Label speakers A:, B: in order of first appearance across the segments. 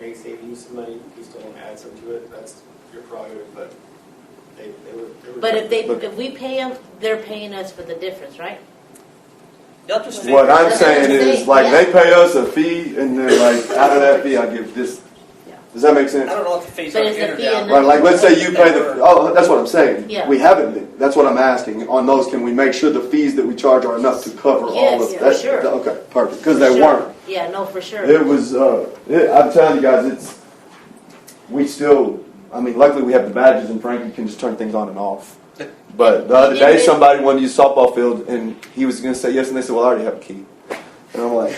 A: make saving use of money, you still want to add some to it, that's your prerogative, but they, they were. were-
B: But if they, if we pay them, they're paying us for the difference, right?
C: They'll just
D: What
C: figure it
D: I'm
C: out.
D: saying is, like, they pay us a fee, and then, like, out of that fee, I give this.
B: Yeah.
D: Does that make
C: I
D: sense?
C: don't know what the fees
B: But
C: are
B: is the
C: in or
B: fee
C: down.
B: enough?
D: Right, like, let's say you pay the, oh, that's what I'm saying.
B: Yeah.
D: We haven't been, that's what I'm asking, on those, can we make sure the fees that we charge are enough to cover all
B: Yes,
D: of
B: for
D: that?
B: sure.
D: Okay, perfect, because
B: For
D: they
B: sure.
D: weren't.
B: Yeah, no, for sure.
D: It was, uh, it, I'm telling you guys, it's, we still, I mean, luckily we have the badges and Frank, you can just turn things on and off. But the other day, somebody wanted to use softball field and he was gonna say yes, and they said, well, I already have a key. And I'm like,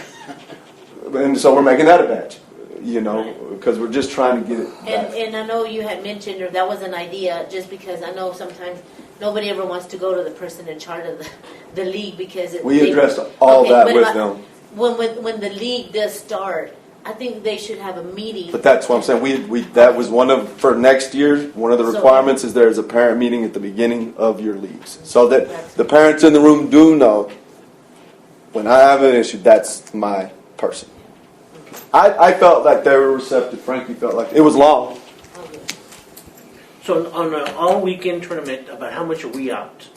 D: and so we're making that a badge, you know, because we're just trying to get it
B: And,
D: back.
B: and I know you had mentioned, or that was an idea, just because I know sometimes nobody ever wants to go to the person in charge of the, the league because it.
D: We
B: they-
D: addressed all
B: Okay,
D: that
B: but
D: with
B: I-
D: them,
B: When, when, when the league does start, I think they should have a meeting.
D: but that's what I'm saying, we, we, that was one of, for next year, one of the
B: So-
D: requirements is there is a parent meeting at the beginning of your leagues. So that the parents in the room do know, when I have an issue, that's my person. I, I felt like they were receptive, Frankie felt like, it was long,
B: Okay.
E: So on an all-weekend tournament, about how much are we out?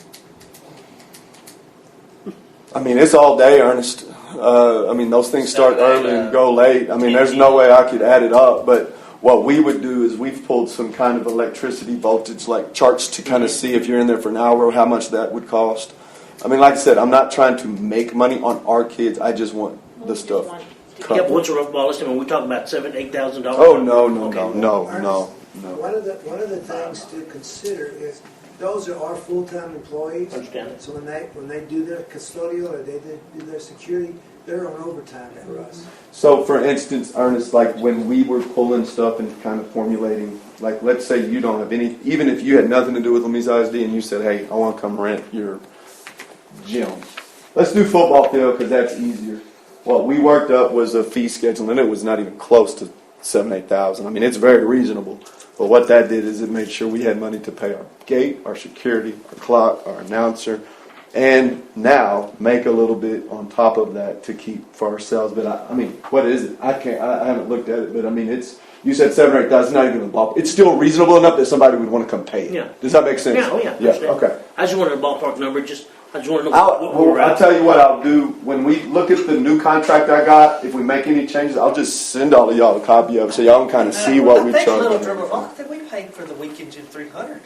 D: I mean, it's all day, Ernest. Uh, I mean, those things start
C: Seven,
D: early
C: uh,
D: and go late. I mean, there's no way I could add it up. But what we would do is we've pulled some kind of electricity voltage like charts to kind of see if you're in there for an hour, how much that would cost. I mean, like I said, I'm not trying to make money on our kids. I just want the
B: Just
D: stuff.
B: one.
D: Cut.
E: Yeah, but what's a rough ball estimate? We're talking about seven, eight thousand dollars.
D: Oh no, no, no,
E: Okay.
D: no, no, no.
F: One of the, one of the things to consider is, those are our full-time employees.
E: Understand.
F: So when they, when they do their custodial or they do do their security, they're on overtime for us.
D: So, for instance, Ernest, like when we were pulling stuff and kind of formulating, like let's say you don't have any, even if you had nothing to do with Lamisa ISD and you said, hey, I want to come rent your gym. Let's do football field because that's easier. What we worked up was a fee schedule and it was not even close to seven, eight thousand. I mean, it's very reasonable. But what that did is it made sure we had money to pay our gate, our security, our clock, our announcer, and now make a little bit on top of that to keep for ourselves. But I, I mean, what is it? I can't. I, I haven't looked at it, but I mean, it's. You said seven or eight thousand, not even a ballpark. It's still reasonable enough that somebody would want to come pay. it.
E: Yeah.
D: Does that make sense?
E: Yeah, oh yeah.
D: Yeah.
E: understand.
D: Okay.
E: I just wanted a ballpark number. Just I just want to know
D: I'll,
E: what we
D: well,
E: we're
D: I'll
E: at.
D: tell you what I'll do when we look at the new contract I got. If we make any changes, I'll just send all of y'all a copy of it so y'all can
G: Uh,
D: kind of see what we
C: I think Little
D: charge.
C: Drummer Rock, I think we paid for the weekend gym three hundred,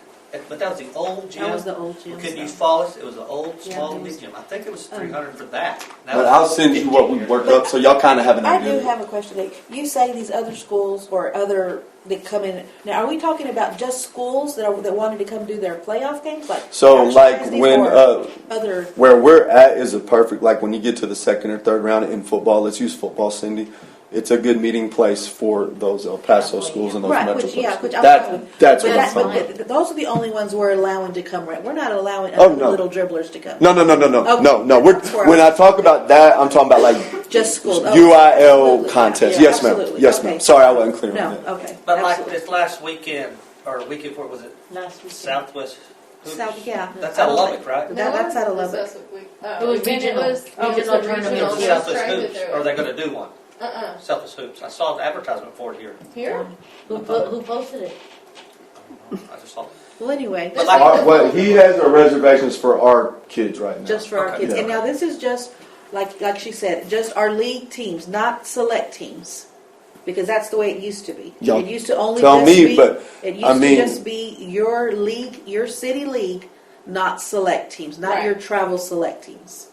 C: but that was the old gym.
G: That was the old
C: We
G: gym.
C: couldn't use
G: stuff.
C: Follis, it was an old,
G: Yeah,
C: small
G: it was- Oh.
C: big gym, I think it was three hundred for that. That
D: But
C: was
D: I'll send you what we worked up so y'all kind of have an
G: I do
D: idea.
G: have a question. Dave. You say these other schools or other that come in. Now, are we talking about just schools that are, that wanted to come do their playoff games, like
D: So,
G: Gosh,
D: like,
G: Thursday
D: when,
G: or
D: uh,
G: other?
D: Where we're at is a perfect, like when you get to the second or third round in football, let's use football, Cindy. It's a good meeting place for those El Paso schools and those
G: Right,
D: metro
G: which, yeah,
D: schools.
G: which I'm fine
D: That,
G: with.
D: that's
G: but
D: what I'm talking
G: that, but
D: about.
G: th- th- those are the only ones we're allowing to come. Right, we're not allowing
D: Oh,
G: other
D: no.
G: little dribblers to come.
D: No, no, no, no, no,
G: Okay,
D: no, no. We're,
G: that's where I
D: when I
G: was-
D: talk about that, I'm talking about like
G: just school. Oh,
D: UIL
G: absolutely.
D: contest.
G: Yeah,
D: Yes, ma'am.
G: absolutely.
D: Yes,
G: Okay.
D: ma'am. Sorry, I wasn't clear on
G: No,
D: that.
G: okay.
C: But like
G: absolutely.
C: this last weekend, or weekend before, was it
B: Last week.
C: Southwest? Hoops?
G: South, yeah.
C: That's out of Lubbock, right?
G: That- that's out of
H: No, it
G: Lubbock.
H: was
B: It was regional.
H: uh, Oh, it was
B: Regional
H: a
B: tournament.
H: regional.
B: Yeah.
H: Yes,
C: Southwest
H: right,
C: Hoops,
H: but
C: or are they gonna do one?
H: they're- Uh-uh.
C: Southwest Hoops, I saw the advertisement for it here.
H: Here?
B: Who, po- who posted it?
C: I just saw,
G: Well, anyway,
H: But like-
D: Our, what he has are reservations for our kids right now.
G: just for our
C: Okay.
G: kids. And now this is just like like she said, just our league teams, not select teams, because that's the way it used to be.
D: Y'all
G: it used to only
D: tell
G: just
D: me,
G: be,
D: but,
G: it used
D: I mean-
G: to just be your league, your city league, not select teams, not your travel select teams.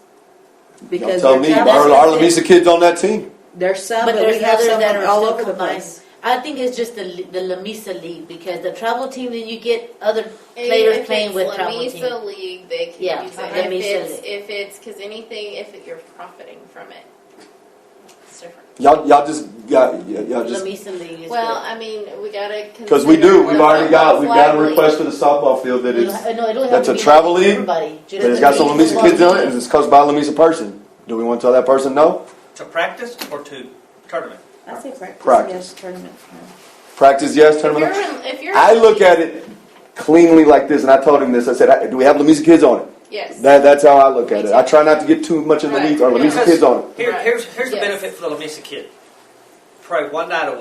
D: Y'all
G: Because
D: tell
G: your
D: me,
G: travel-
D: are,
B: that's
D: are
B: what I'm saying.
D: Lamisa kids on that team?
G: there's some,
B: But
G: but,
B: there's
G: we have
B: others
G: some
B: that are
G: all
B: still
G: over the
B: combined.
G: place.
B: I think it's just the, the La Mesa League because the travel team, then you get other
H: And
B: players
H: if
B: playing
H: it's
B: with
H: La
B: travel team.
H: Mesa League, they can
B: Yeah,
H: use it.
B: La
H: If
B: Mesa
H: it's,
B: League.
H: if it's, because anything, if it- you're profiting from it, it's different.
D: Y'all, y'all just got, y'all
B: La
D: just
B: Mesa League is
H: Well, I mean, we gotta.
D: Because we do, we've already got, we've got a
H: Likely.
D: request for the softball field that
B: good.
D: is,
B: It'll- no, it'll have
D: that's
B: to
D: a
B: be
D: travel league,
B: Everybody.
D: that it's got some Lamisa kids in it, and it's coached by a Lamisa person. Do we want to tell that person no?
C: to practice or to tournament?
G: I say practice,
D: Practice.
G: yes, tournament.
D: Practice yes,
H: If
D: tournament
H: you're, in- if
D: no?
H: you're.
D: I look at it cleanly like this, and I told him this. I said, "I- "Do we have Lamisa kids on it?"
H: Yes.
D: That, that's how I look at it. I try not to get too much in the
H: Right.
D: weeds. Are Lamisa
C: Because
D: kids on it?
C: Here,
H: Right.
C: here's, here's the
H: Yes.
C: benefit for the Lamisa kid. Pray one night a week.